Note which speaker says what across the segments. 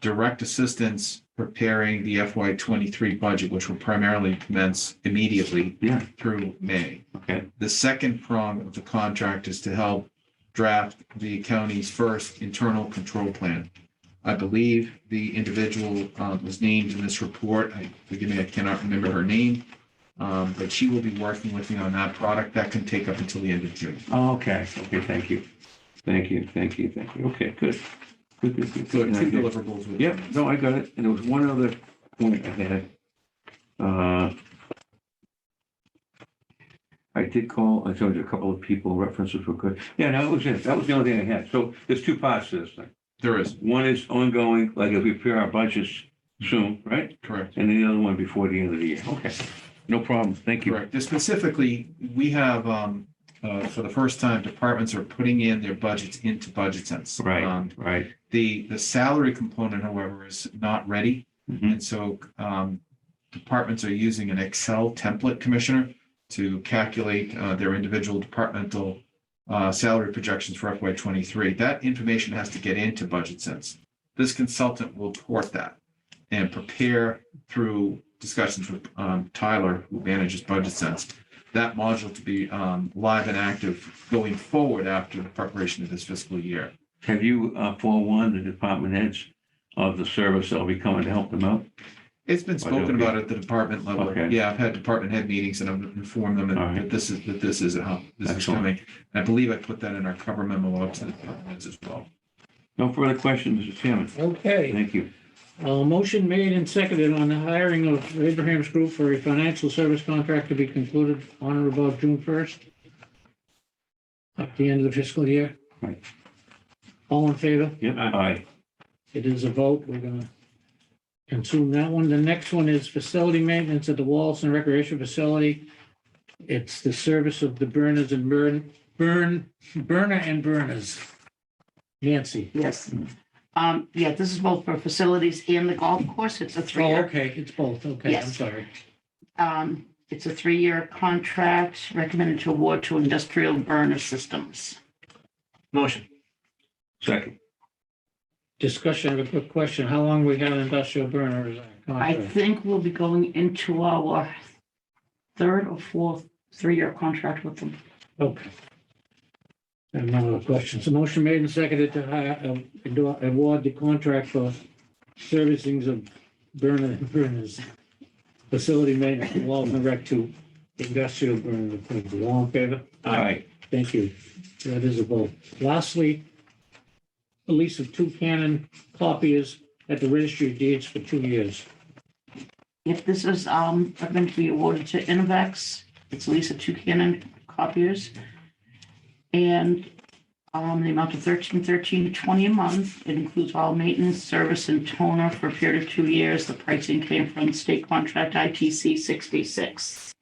Speaker 1: direct assistance preparing the FY twenty-three budget, which will primarily commence immediately
Speaker 2: Yeah.
Speaker 1: through May.
Speaker 2: Okay.
Speaker 1: The second prong of the contract is to help draft the county's first internal control plan. I believe the individual uh, was named in this report. I, forgive me, I cannot remember her name. Um, But she will be working with me on that product. That can take up until the end of June.
Speaker 2: Oh, okay. Okay, thank you. Thank you, thank you, thank you. Okay, good. Good, good, good,
Speaker 1: So
Speaker 2: good.
Speaker 1: two
Speaker 2: And I did-
Speaker 1: deliverables. with-
Speaker 2: Yep, no, I got it. And there was one other point I had. Uh, I did call, I told you a couple of people, references were good. Yeah, that was it. That was the only thing I had. So there's two parts to this thing.
Speaker 1: There is,
Speaker 2: One is ongoing, like if we prepare our budgets soon, right?
Speaker 1: correct.
Speaker 2: And then the other one before the end of the year. Okay, no problem. Thank you.
Speaker 1: Correct. Just Specifically, we have, um, uh, for the first time, departments are putting in their budgets into budget sense. Um,
Speaker 2: Right, right.
Speaker 1: The, the salary component, however, is not ready.
Speaker 2: Mhm.
Speaker 1: And so um, departments are using an Excel template, Commissioner, to calculate uh, their individual departmental uh, salary projections for FY twenty-three. That information has to get into Budget Sense. This consultant will port that and prepare through discussions with um, Tyler, who manages Budget Sense, that module to be um, live and active going forward after the preparation of this fiscal year.
Speaker 2: Have you uh, forewarned the department heads of the service that'll be coming to help them out?
Speaker 1: It's been
Speaker 2: Why don't
Speaker 1: spoken
Speaker 2: we-
Speaker 1: about at the department level.
Speaker 2: Okay.
Speaker 1: Yeah, I've had department head meetings and I've informed them
Speaker 2: All
Speaker 1: that-
Speaker 2: right.
Speaker 1: that this is, that this is, how this is
Speaker 2: Excellent.
Speaker 1: coming. And I believe I put that in our cover memo out to the departments as well.
Speaker 2: No further questions, Mr. Chairman.
Speaker 3: Okay,
Speaker 2: Thank you.
Speaker 3: uh, motion made and seconded on the hiring of Abraham's Group for a financial service contract to be concluded on or about June first. At the end of the fiscal year.
Speaker 2: Right.
Speaker 3: All in favor?
Speaker 2: Yep, aye.
Speaker 3: It is a vote. We're gonna consume that one. The next one is facility maintenance at the Wallace and Recreation Facility. It's the service of the burners and burn, burn, burner and burners. Nancy.
Speaker 4: Yes. Um, yeah, this is both for facilities and the golf course. It's a
Speaker 3: Oh,
Speaker 4: three-year,
Speaker 3: okay, it's both. Okay, I'm
Speaker 4: Yes.
Speaker 3: sorry.
Speaker 4: um, it's a three-year contract recommended to award to industrial burner systems.
Speaker 5: Motion.
Speaker 2: Second.
Speaker 3: Discussion, I have a quick question. How long we got industrial burner as a
Speaker 4: I
Speaker 3: contract?
Speaker 4: think we'll be going into our third or fourth three-year contract with them.
Speaker 3: Okay. I have no other questions. A motion made and seconded to hire, uh, ado- award the contract for servicings of burner, burners. Facility maintenance, Walton Rec to industrial burner. of Quincy. All in favor?
Speaker 2: Aye.
Speaker 3: Thank you. That is a vote. Lastly, the lease of two Canon copiers at the registry of deeds for two years.
Speaker 4: If this is, um, going to be awarded to Innovex, it's Lisa two Canon copiers. And, um, the amount of thirteen, thirteen, twenty a month. It includes all maintenance, service and toner for a period of two years. The pricing came from state contract ITC sixty-six.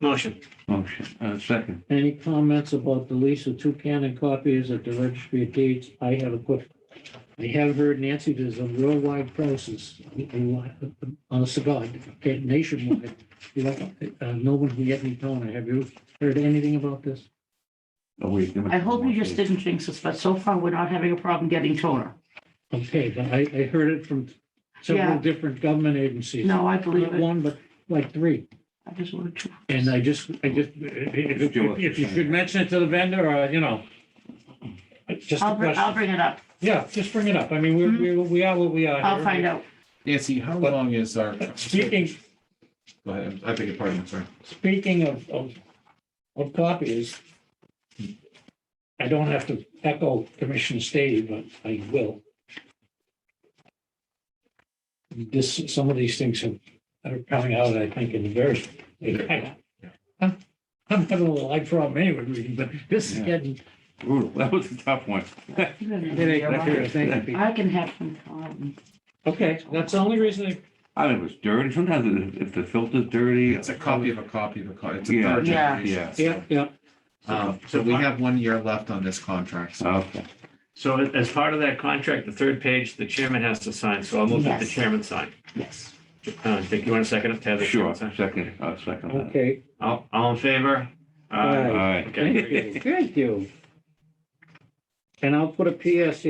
Speaker 5: Motion.
Speaker 2: Motion, uh, second.
Speaker 3: Any comments about the lease of two Canon copies at the registry of deeds? I have a quick. I have heard Nancy, there's a worldwide process on a cigar, nationwide. You know, uh, No one can get any toner. Have you heard anything about this?
Speaker 2: Oh, wait, there was
Speaker 4: I hope
Speaker 2: one
Speaker 4: you
Speaker 2: more
Speaker 4: just
Speaker 2: page.
Speaker 4: didn't jinx us, but so far we're not having a problem getting toner.
Speaker 3: Okay, but I, I heard it from several
Speaker 4: Yeah.
Speaker 3: different government agencies.
Speaker 4: No, I believe
Speaker 3: Not
Speaker 4: it.
Speaker 3: one, but like three.
Speaker 4: I just wanted to.
Speaker 3: And I just, I just, if, if- if you could mention it to the vendor or, you know, just a
Speaker 4: I'll, br-
Speaker 3: question.
Speaker 4: I'll bring it up.
Speaker 3: Yeah, just bring it up. I mean, we're- we're, we are what we are.
Speaker 4: Mm-hmm. I'll find out.
Speaker 1: Nancy, how
Speaker 3: But-
Speaker 1: long is our?
Speaker 3: Speaking,
Speaker 1: Go ahead. I beg your pardon, I'm sorry.
Speaker 3: speaking of, of, of copies, I don't have to echo Commissioner Stady, but I will. This, some of these things have- are coming out, I think, in very, I- I'm I'm having a little eye problem anyway, reading, but this is
Speaker 2: Yeah.
Speaker 3: getting.
Speaker 2: Brutal, that was a tough one.
Speaker 3: Thank you.
Speaker 4: I can have them. um,
Speaker 3: Okay, that's the only reason I
Speaker 2: I mean, it was dirty, sometimes if- if the filter's dirty.
Speaker 1: It's a copy of a copy of a copy. It's a
Speaker 2: Yeah.
Speaker 1: third
Speaker 4: Yeah.
Speaker 1: generation.
Speaker 3: Yeah, yeah.
Speaker 1: Um, So we have one year left on this contract. So
Speaker 2: uh, Okay,
Speaker 5: So a- as part of that contract, the third page, the chairman has to sign, so I'll move that the
Speaker 4: Yes.
Speaker 5: chairman sign.
Speaker 4: Yes.
Speaker 5: Uh, Dick, you want a second to have the
Speaker 2: sure,
Speaker 5: chairman sign?
Speaker 2: second, uh, second. that.
Speaker 3: Okay,
Speaker 5: All, all in favor? Uh,
Speaker 3: Aye.
Speaker 2: All right.
Speaker 5: Okay.
Speaker 3: thank you, thank you. And I'll put a E PS